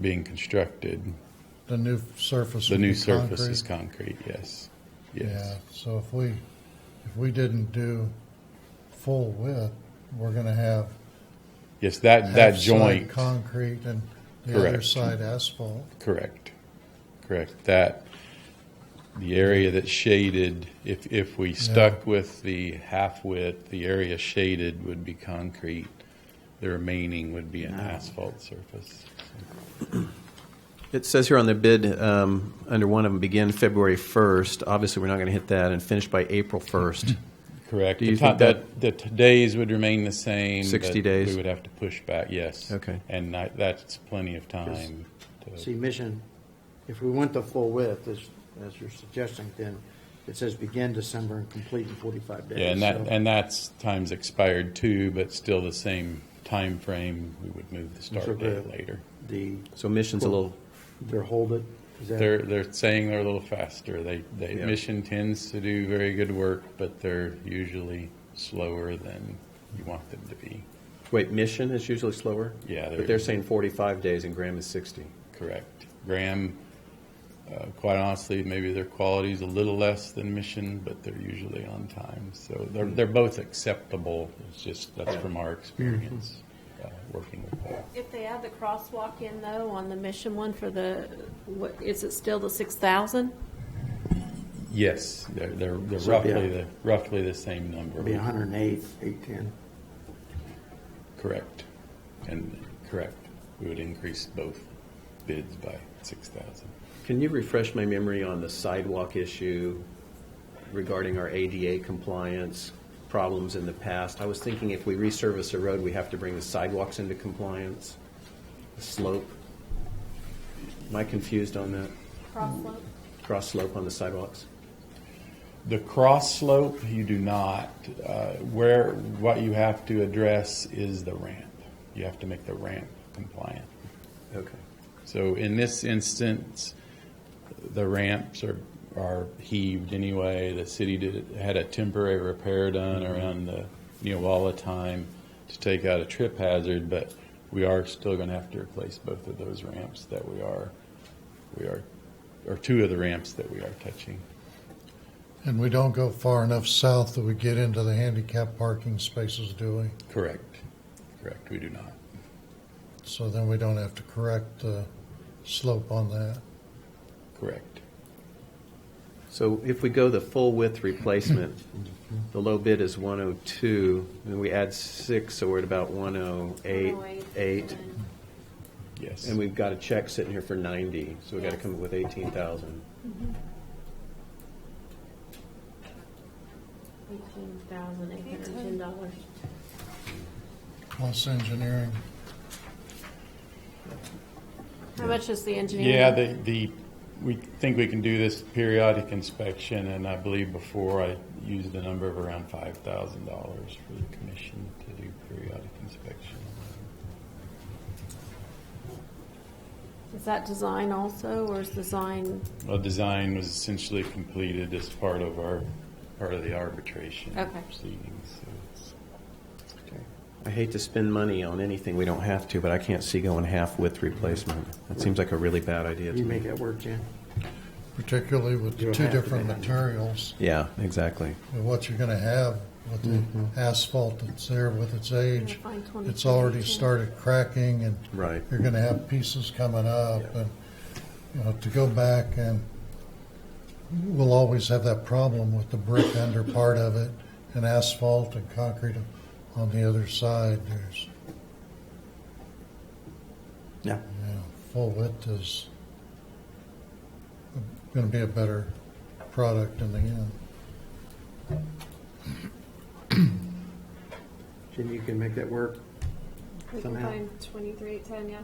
being constructed. The new surface. The would new be surface is concrete. concrete, yes. Yeah, Yes. so if we, if we didn't do full width, we're gonna have Yes, that, that half side joint, Concrete and the other Correct. side asphalt. correct, correct. That, the area that's shaded, if, if we stuck with the half width, the area shaded would be concrete. The remaining would be an asphalt surface. It says here on the bid, um, under one of them, begin February 1st. Obviously, we're not going to hit that and finish by April 1st. Correct. Do The you ti- think that- The t- days would remain the same. 60 but days? We would have to push back, yes. Okay. And I- that's plenty of time. to- See, mission, if we went the full width, as, as you're suggesting, then it says begin December and complete in forty-five days. Yeah, and so- that, and that's, time's expired too, but still the same time frame. we would move the So start the- date later. The, So mission's a little, their hold it, is that? They're, they're saying they're a little faster. They, they, Yeah. Mission tends to do very good work, but they're usually slower than you want them to be. wait, mission is usually slower? Yeah, they're- But they're saying 45 days and Graham is 60. Correct. Graham, uh, quite honestly, maybe their quality's a little less than Mission, but they're usually on time. So they're, Hmm. they're both acceptable. It's just, that's from our experience, uh, working with them. If they add the crosswalk in though, on the mission one for the, what, is it still the six thousand? Yes, they're, they're they're So, yeah. roughly, the roughly the same number. Be hundred and eight, eight ten. Correct. And, correct. We would increase both bids by 6,000. Can you refresh my memory on the sidewalk issue regarding our ADA compliance problems in the past? I was thinking if we resurface a road, we have to bring the sidewalks into compliance, the slope. Am I confused on that? Crosswalk? Cross slope on the sidewalks? The cross slope, you do not. Uh, Where, what you have to address is the ramp. You have to make the ramp compliant. Okay. So in this instance, the ramps are, are heaved anyway. The city did, had a temporary repair done around the Neowalla time to take out a trip hazard, but we are still gonna have to replace both of those ramps that we are, we are, or two of the ramps that we are touching. And we don't go far enough south that we get into the handicap parking spaces, do we? Correct. Correct, we do not. So then we don't have to correct the slope on that. Correct. So if we go the full width replacement, the low bid is 102, and we add six, so we're at about Oh, 108, eight. Yes. And we've got a check sitting here for 90, so we've got to come up with 18,000. Eighteen thousand eight hundred and ten dollars. Plus engineering, How much is the engineering? Yeah, the, the, we think we can do this periodic inspection, and I believe before I used the number of around five thousand dollars for the commission to do periodic inspection. Is that design also, or is design, Well, design was essentially completed as part of our, part of the arbitration Okay. proceedings, so it's. I hate to spend money on anything we don't have to, but I can't see going half width replacement. That seems like a really bad idea to You make me. that work, Jan? particularly with the You'll two have to different do that. materials, Yeah, exactly. and what you're gonna have with Mm-hmm. the asphalt that's there with its age. Find 20, It's already 22. started cracking and Right. you're gonna have pieces coming up and, you know, to go back and we'll always have that problem with the brick under part of it and asphalt and concrete on the other side. There's, Yeah. you know, full width is gonna be a better product in the end. Jim, you can make that work, we can Somehow. find twenty-three eight ten, yeah,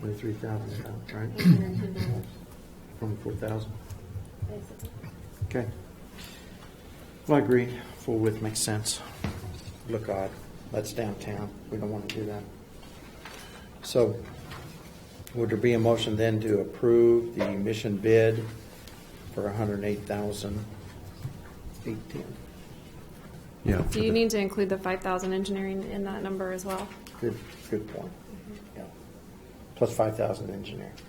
twenty-three thousand, right, eight hundred and ten dollars, from four thousand, basically. okay. Well, I agree, full width makes sense. Look odd, that's downtown, we don't want to do that. So, would there be a motion then to approve the mission bid for a hundred and eight thousand eight ten? Yeah. Do you need to include the five thousand engineering in that number as well? Good, good point. Yeah. plus five thousand engineer.